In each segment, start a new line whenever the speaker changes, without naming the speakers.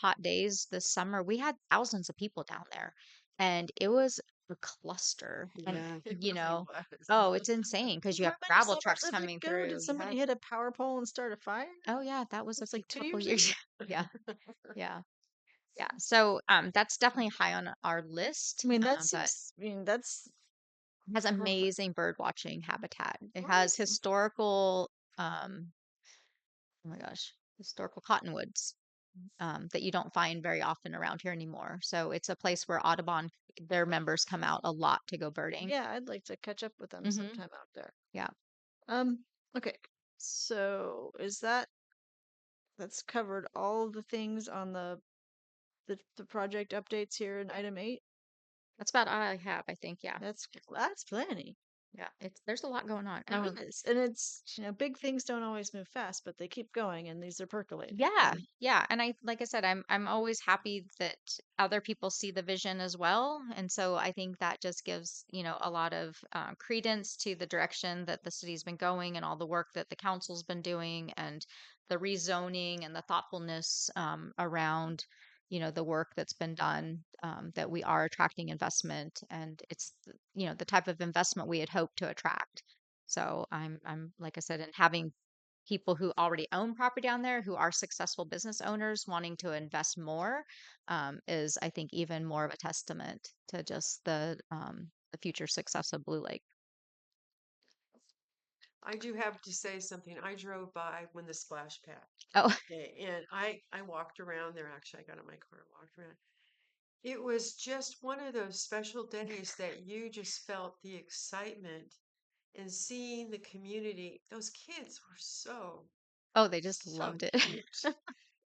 hot days this summer, we had thousands of people down there, and it was a cluster. And
Yeah.
It
you
really
know,
was.
oh, it's insane because you have gravel trucks
It
coming
go?
through.
Did
you
somebody
had-
hit a power pole and start a fire?
oh yeah, that was a
It's like
few-
two
couple
years
years. yeah, yeah, yeah. So um, that's definitely high on our list.
I mean,
um,
that
but-
seems. I mean, that's
has
Perfect.
amazing bird watching habitat. It has
Right.
historical, um, oh my gosh, historical cottonwoods um, that you don't find very often around here anymore. So it's a place where Audubon, their members come out a lot to go birding.
yeah. I'd like to catch up with them
Mhm.
sometime out there.
Yeah.
Um. Okay. So is that that's covered all of the things on the the, the project updates here in item eight?
That's about all I have, I think. Yeah,
That's that's plenty.
yeah. It's there's a lot going on.
It
Um,
is. And it's you know big things don't always move fast, but they keep going, and these are percolating.
yeah,
and
yeah. And I, like I said, I'm I'm always happy that other people see the vision as well. And so I think that just gives you know a lot of um, credence to the direction that the city's been going and all the work that the council's been doing and the rezoning and the thoughtfulness um, around you know the work that's been done um, that we are attracting investment and it's th- you know the type of investment we had hoped to attract so i'm i'm like i said and having people who already own property down there who are successful business owners wanting to invest more um, is i think even more of a testament to just the um, the future success of blue lake
I do have to say something. I drove by when the splash pad.
Oh.
day, And I I walked around there. Actually, I got in my car and walked around. It was just one of those special days that you just felt the excitement and seeing the community. Those kids were so
oh they just
so
loved it
cute.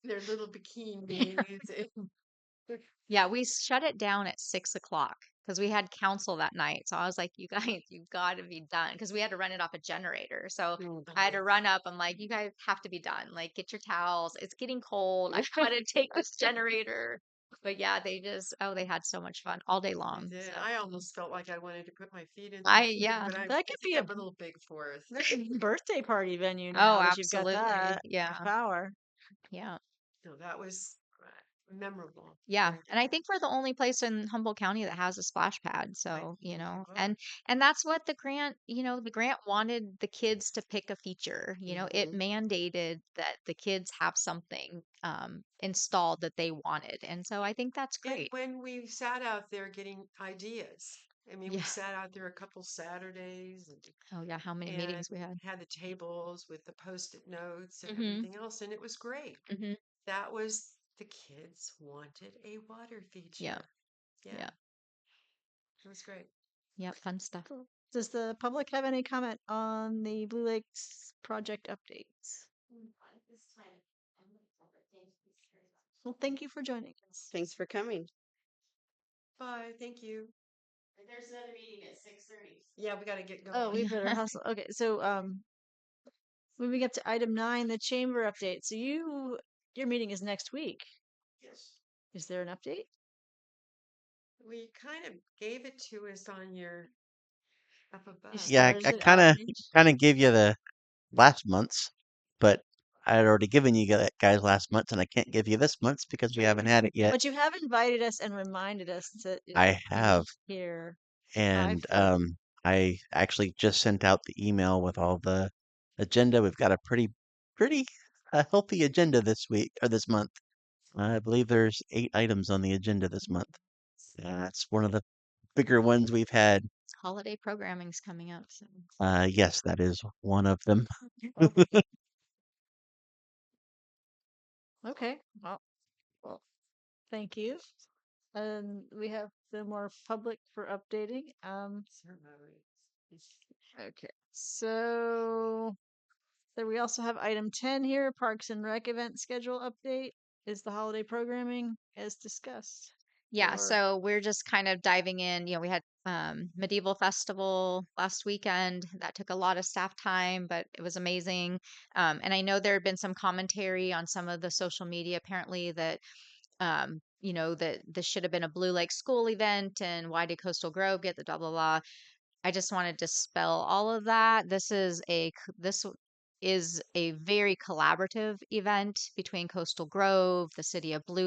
Their little bikinis. and-
yeah we shut it down at six o'clock because we had council that night so i was like you guys you gotta be done because we had to run it off a generator so I had to run up. I'm like, you guys have to be done. Like, get your towels. It's getting cold. I've got to take this generator. But yeah, they just, oh, they had so much fun all day
I
long.
did.
so-
I almost felt like I wanted to put my feet in.
I-
the heat,
yeah,
but I-
that
I
could
think
be a-
I'm little big for us.
birthday party venue. Now
Oh,
that
absolutely.
You've got that
Uh-huh.
Yeah.
power.
Yeah.
No, that was uh, memorable.
Yeah.
Very
And I think we're the only place in Humboldt County that has a splash pad. So, you know,
are.
and and that's what the grant, you know, the grant wanted the kids to pick a feature. You know,
Mm-hmm.
it mandated that the kids have something um installed that they wanted. And so I think that's
And
great.
when we sat out there getting ideas, I mean, we
Yeah.
sat out there a couple Saturdays and
Oh yeah, how many meetings we
Mm.
had.
had the tables with the post-it notes
Mm-hmm.
and
Mhm.
everything else, and it was great.
Mhm.
That was the kids wanted a water feature. Yeah.
yeah.
It was great.
Yeah, fun stuff.
Does the public have any comment on the Blue Lakes project updates? Well, thank you for joining us.
Thanks for coming.
Bye. Thank you.
There's another meeting at six thirty.
Yeah, we got to get going.
Oh, we better hustle. Okay, so um, moving up to item nine, the chamber update. So you, your meeting is next week.
yes.
Is there an update?
We kind of gave it to us on your up above.
You
Yeah, I-
started
I
it
kinda-
already?
kind of gave you the last month's, but I had already given you gu- guys last month, and I can't give you this month's because we haven't had it yet.
But you have invited us and reminded us that it's
I have,
here.
and
feel-
um, I actually just sent out the email with all the agenda. We've got a pretty, pretty uh, healthy agenda this week or this month. Uh, I believe there's eight items on the agenda this month. That's one of the bigger ones we've had.
Holiday programming's coming up. So.
Uh, yes, that is one of them.
Okay. Well, well, thank you. And we have no more public for updating. Um, Okay, so then we also have item ten here, Parks and Rec event schedule update. Is the holiday programming as discussed?
Yeah,
Or-
so we're just kind of diving in. You know, we had um, Medieval Festival last weekend. That took a lot of staff time, but it was amazing. Um, and I know there had been some commentary on some of the social media, apparently, that, um, you know, that this should have been a Blue Lake School event and why did Coastal Grove get the blah, blah, blah. I just want to dispel all of that. This is a, c- this w- is a very collaborative event between Coastal Grove, the city of Blue